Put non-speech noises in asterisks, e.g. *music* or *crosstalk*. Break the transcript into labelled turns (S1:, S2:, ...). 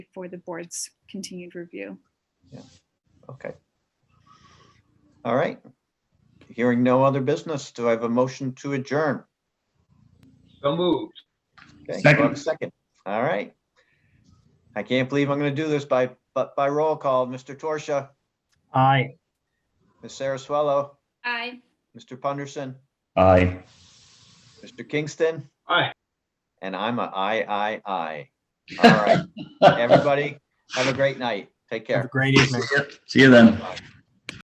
S1: for the board's continued review.
S2: Okay. All right. Hearing no other business, do I have a motion to adjourn?
S3: So moved.
S2: Okay, do I have a
S4: Second.
S2: Second. All right. I can't believe I'm going to do this by, but by roll call, Mr. Torsia,
S4: Aye.
S2: Ms. Saraswello,
S1: Aye.
S2: Mr. Punderson,
S4: Aye.
S2: Mr. Kingston,
S3: Aye.
S2: and I'm a I, I, I. All right, everybody, have a great night. Take
S5: Have a
S2: care.
S5: great evening.
S4: *laughs* See you then.
S2: Bye.